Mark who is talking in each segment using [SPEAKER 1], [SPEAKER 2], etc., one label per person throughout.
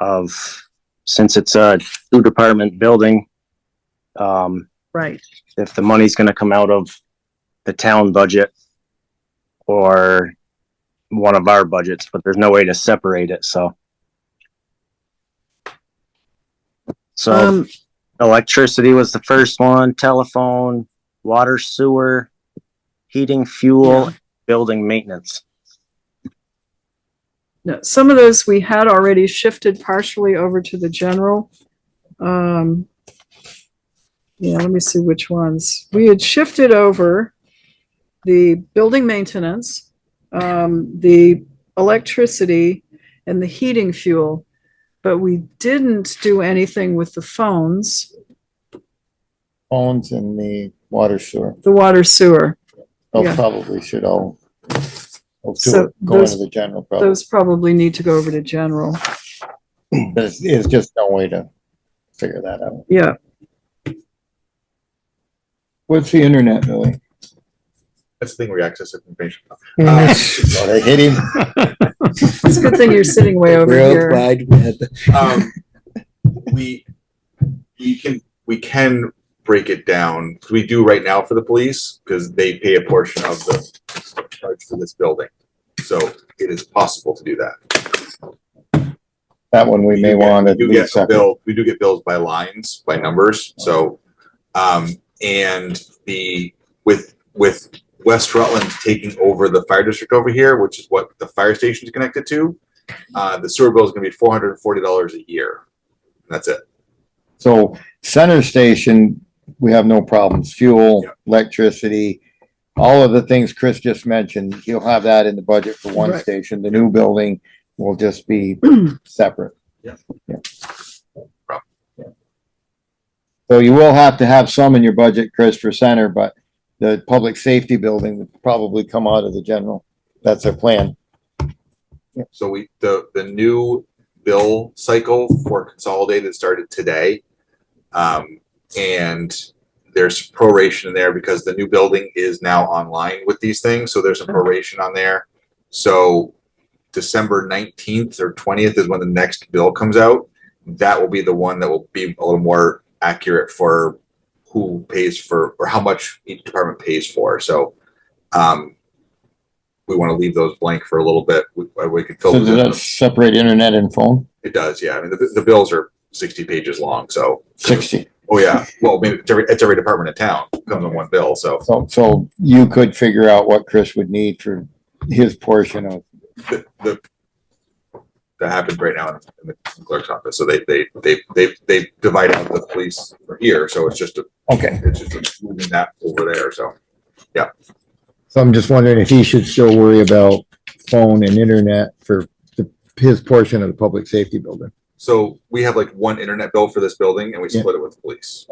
[SPEAKER 1] of, since it's a two department building, um,
[SPEAKER 2] right,
[SPEAKER 1] if the money's gonna come out of the town budget or one of our budgets, but there's no way to separate it, so. So
[SPEAKER 2] um,
[SPEAKER 1] electricity was the first one, telephone, water, sewer, heating, fuel, building maintenance.
[SPEAKER 2] no, some of those we had already shifted partially over to the general. Um, yeah, let me see which ones. We had shifted over the building maintenance, um, the electricity and the heating fuel. But we didn't do anything with the phones,
[SPEAKER 3] phones and the water sewer.
[SPEAKER 2] the water sewer.
[SPEAKER 3] They'll
[SPEAKER 2] Yeah.
[SPEAKER 3] probably should all all do
[SPEAKER 2] So
[SPEAKER 3] it, go into
[SPEAKER 2] those-
[SPEAKER 3] the general probably.
[SPEAKER 2] Those probably need to go over to general.
[SPEAKER 3] But it's, it's just no way to figure that out.
[SPEAKER 2] Yeah,
[SPEAKER 3] What's the internet, Billy?
[SPEAKER 4] That's the thing where you access information.
[SPEAKER 3] Oh,
[SPEAKER 4] Uh,
[SPEAKER 3] they hit him.
[SPEAKER 2] it's a good thing you're sitting way over here.
[SPEAKER 4] um, we we can we can break it down. We do right now for the police because they pay a portion of the charge for this building, so it is possible to do that.
[SPEAKER 3] That one we may
[SPEAKER 4] do get-
[SPEAKER 3] want
[SPEAKER 4] we
[SPEAKER 3] at
[SPEAKER 4] do get
[SPEAKER 3] least.
[SPEAKER 4] a
[SPEAKER 3] separate.
[SPEAKER 4] bill. We do get bills by lines, by numbers. So, um, and the with with West Rutland taking over the fire district over here, which is what the fire station is connected to, uh, the sewer bill is going to be four hundred and forty dollars a year. That's it.
[SPEAKER 3] So center station, we have no problems. Fuel,
[SPEAKER 4] Yeah.
[SPEAKER 3] electricity, all of the things Chris just mentioned, you'll have that in the budget for one
[SPEAKER 2] Right.
[SPEAKER 3] station. The new building will just be separate.
[SPEAKER 4] Yeah.
[SPEAKER 3] Yeah.
[SPEAKER 4] Problem.
[SPEAKER 3] Yeah. So you will have to have some in your budget, Chris, for center, but the public safety building would probably come out of the general. That's our plan.
[SPEAKER 4] So we, the, the new bill cycle for consolidated started today. Um, and there's proration in there because the new building is now online with these things, so there's a proration on there. So December nineteenth or twentieth is when the next bill comes out. That will be the one that will be a little more accurate for who pays for, or how much each department pays for, so. Um, we want to leave those blank for a little bit, we, we could fill.
[SPEAKER 3] So
[SPEAKER 4] those in.
[SPEAKER 3] does that separate internet and phone?
[SPEAKER 4] It does, yeah. I mean, the, the bills are sixty pages long, so.
[SPEAKER 3] Sixty.
[SPEAKER 4] Oh, yeah. Well, I mean, it's every, it's every department in town comes on one bill, so
[SPEAKER 3] So, so you could figure out what Chris would need for his portion of
[SPEAKER 4] the, the. That happens right now in in the clerk's office. So they, they, they, they, they divide out the police for here, so it's just, a
[SPEAKER 3] Okay,
[SPEAKER 4] it's just moving that over there, so.
[SPEAKER 3] so I'm just wondering if he should still worry about phone and internet for the, his portion of the public safety building.
[SPEAKER 4] So we have like one internet bill for this building and we
[SPEAKER 3] Yeah.
[SPEAKER 4] split it with the police.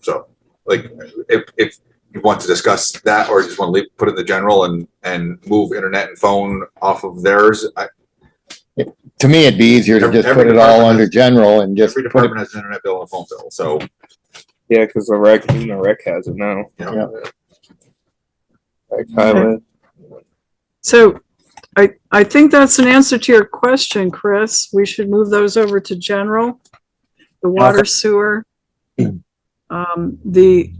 [SPEAKER 4] So like if, if you want to discuss that or just want to leave, put it in the general and, and move internet and phone off of theirs, I,
[SPEAKER 3] To me, it'd be easier to
[SPEAKER 4] Every-
[SPEAKER 3] just put
[SPEAKER 4] every
[SPEAKER 3] it all
[SPEAKER 4] department
[SPEAKER 3] under
[SPEAKER 4] has-
[SPEAKER 3] general and just
[SPEAKER 4] Every
[SPEAKER 3] put it,
[SPEAKER 4] department has an internet bill and a phone bill, so,
[SPEAKER 5] Yeah, because the rec, even the rec has it now.
[SPEAKER 4] you know,
[SPEAKER 5] Like Highland.
[SPEAKER 2] So I, I think that's an answer to your question, Chris. We should move those over to general, the water sewer, um, the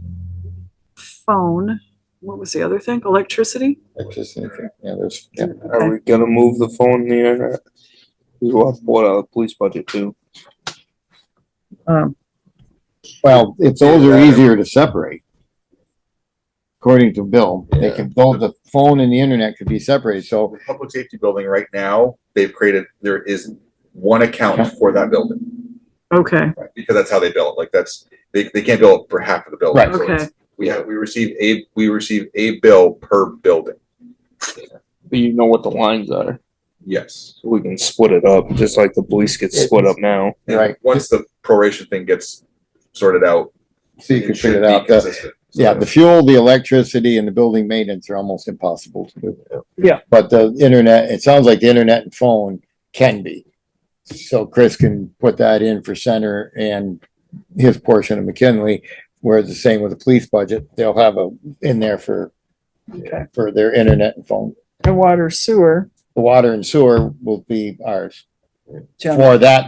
[SPEAKER 2] phone, what was the other thing? Electricity?
[SPEAKER 3] it's just, yeah, there's, yeah.
[SPEAKER 5] Are we gonna move the phone and the internet? We will have to pull it out of the police budget too.
[SPEAKER 2] Um,
[SPEAKER 3] Well, if those are easier to separate. According to Bill, they can, though the phone and the internet could be separated, so,
[SPEAKER 4] the public safety building right now, they've created, there is one account for that building,
[SPEAKER 2] okay,
[SPEAKER 4] right? because that's how they bill it, like that's, they, they can't bill it for half of the building.
[SPEAKER 3] Right.
[SPEAKER 4] so it's-
[SPEAKER 2] okay,
[SPEAKER 4] We have, we receive a, we receive a bill per building,
[SPEAKER 5] But you know what the lines are.
[SPEAKER 4] yes.
[SPEAKER 5] We can split it up, just like the police gets split up now.
[SPEAKER 4] And
[SPEAKER 3] Right.
[SPEAKER 4] Once the proration thing gets sorted out.
[SPEAKER 3] so you can
[SPEAKER 4] should
[SPEAKER 3] figure it
[SPEAKER 4] be
[SPEAKER 3] out. The-
[SPEAKER 4] consistent.
[SPEAKER 3] Yeah, the fuel, the electricity and the building maintenance are almost impossible to do.
[SPEAKER 2] Yeah.
[SPEAKER 3] But the internet, it sounds like the internet and phone can be. So Chris can put that in for center and his portion of McKinley, whereas the same with the police budget, they'll have a, in there for,
[SPEAKER 2] okay.
[SPEAKER 3] for their internet and phone.
[SPEAKER 2] And water sewer,
[SPEAKER 3] The water and sewer will be ours
[SPEAKER 2] general.
[SPEAKER 3] for that